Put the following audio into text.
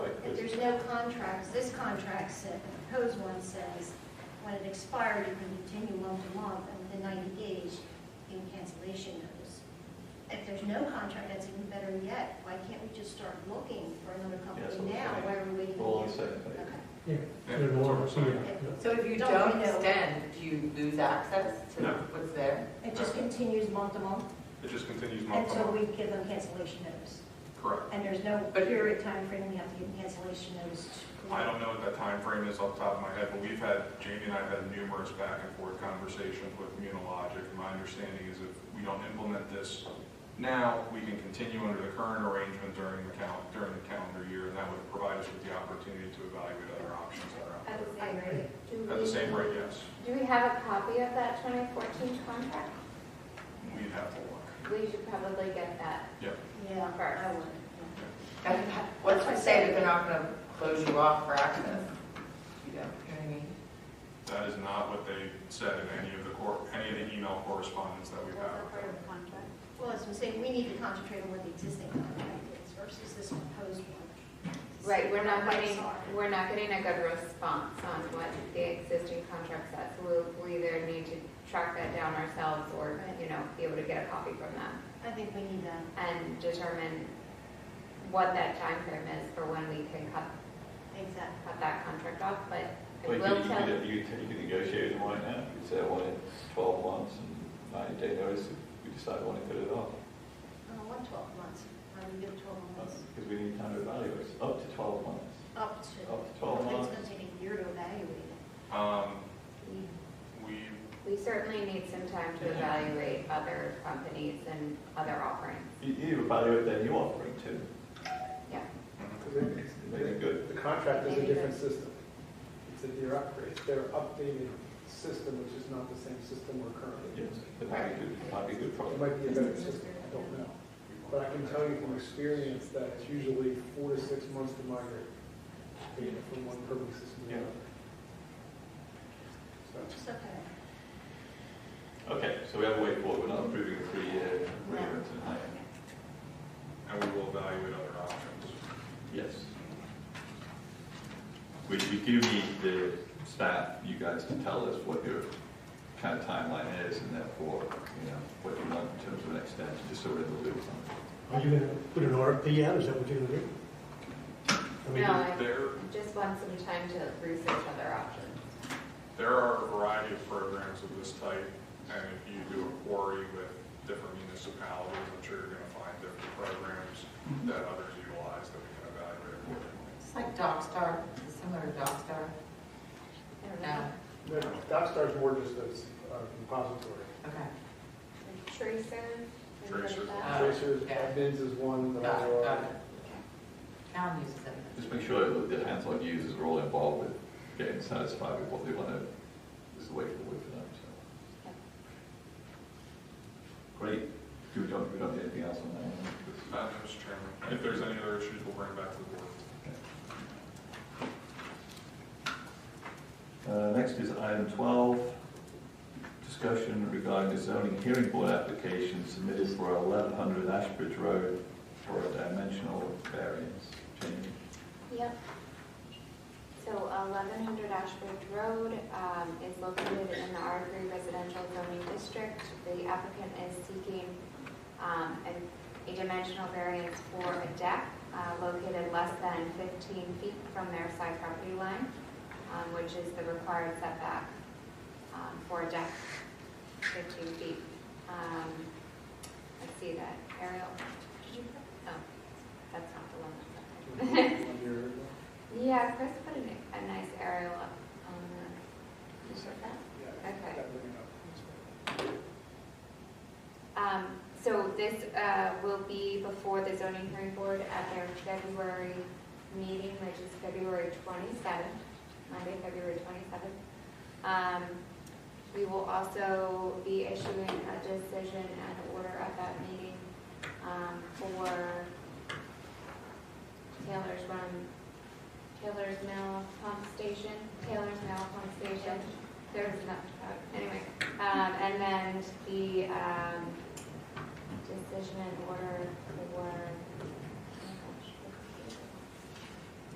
contracts, this contract said, the proposed one says, when it expired, you can continue month to month, and within 90 days, you can cancellation notice. If there's no contract, that's even better yet. Why can't we just start looking for another That's what company I'm now? saying. Why are we waiting? We're all on the years? same page. Okay. Yeah, Yeah, they're that's what I'm more, saying. yeah, yeah. So if you Don't don't we know? extend, do you lose access to No. what's there? It just continues month to month It just continues month to until month. we give them cancellation notice. Correct. And there's no But- period time frame we have to give them cancellation notice. to- I don't know what that time frame is off the top of my head, but we've had, Jamie and I have had numerous back and forth conversations with Immunologic. My understanding is if we don't implement this now, we can continue under the current arrangement during the cal, during the calendar year, and that would provide us with the opportunity to evaluate other options that are out At the same I- rate. there. At the same rate, yes, Do we have a copy of that 2014 contract? we'd have to look. We should probably get that. Yeah, I First. would. And What's to say that they're not going to close you off for access? You don't, you know what I mean? That is not what they said in any of the cor, any of the email correspondence that we've had. with them. contract. Well, as I'm saying, we need to concentrate on what the existing contract is versus this proposed one. Right, we're not Right, getting, sorry. we're not getting a good response on what the existing contract says. We'll, we either need to track that down ourselves or, you know, be able to get a copy from them I think we need that. and determine what that time frame is for when we can cut, Exactly. cut that contract off, but But I you will could, tell. you could, you could- you could negotiate them right now. You could say, I want it twelve months and ninety day notice if we decide we want to put it off. Uh, one twelve months, I would give twelve months, Because we need time to evaluate, It's up to twelve months. up to. Up to 12 months. It's gonna take a year to evaluate it. Um, you- we We certainly need some time to Yeah. evaluate other companies and other offerings. You, you evaluate their new offering too. Yeah. Maybe good. The contract is a different system. It's a, they're upgrade, it's their updated system, which is not the same system we're currently Yes, using. that might be good, might be good It product. might be a better system, I don't know. But I can tell you from experience that it's usually four to six months to migrate data from one permitting system to Yeah. another. So, Just okay. Okay, so we have a way forward, we're not approving a three-year agreement tonight. and we will evaluate other options. Yes. We, we do need the staff, you guys, to tell us what your kind of timeline is and therefore, you know, what you want in terms of an extension, just so we're in the loop on Are you gonna put an RFP out, is that what you're gonna do? I mean, No, I There, just want some time to research other options. there are a variety of programs of this type, and if you do a query with different municipalities, I'm sure you're gonna find different programs that others utilize that we can evaluate accordingly. It's like DocStar, it's similar to DocStar. I don't No, know. no, DocStar's more just a uh, repository. okay. Tracer? Tracer. Uh, Tracers, yeah. admins is one, the Got it, other got are. it. Town uses it. it. Just make sure that the hands-on users are all involved with getting satisfied with what they want to, is the way forward for them, so. Great, do we don't, we don't need anything else on that? one? Uh, Mr. Chairman, if there's any other issues, we'll bring it back to the board. Uh, Next is item 12, discussion regarding the zoning hearing board application submitted for 1100 Ashbridge Road for a dimensional variance. Jamie? Yep. So eleven hundred Ashbridge Road um, is located in the R three residential zoning district. The applicant is seeking um, a- a dimensional variance for a deck uh, located less than fifteen feet from their side property line, um, which is the required setback um, for a deck, fifteen feet. Um, Let's see that, Ariel, did you, oh, that's not the one that's up there. Yeah, Chris put a, ni- a nice aerial up on the, you sure that? Okay. Um, so this, uh, will be before the zoning hearing board at their February meeting, which is February twenty-seventh, Monday, February twenty-seventh. Um, we will also be issuing a decision and order at that meeting, um, for Taylor's Run, Taylor's Mill Pump Station, Taylor's Mill Pump Station. There's enough to talk, anyway. Um, and then the, um, decision and order for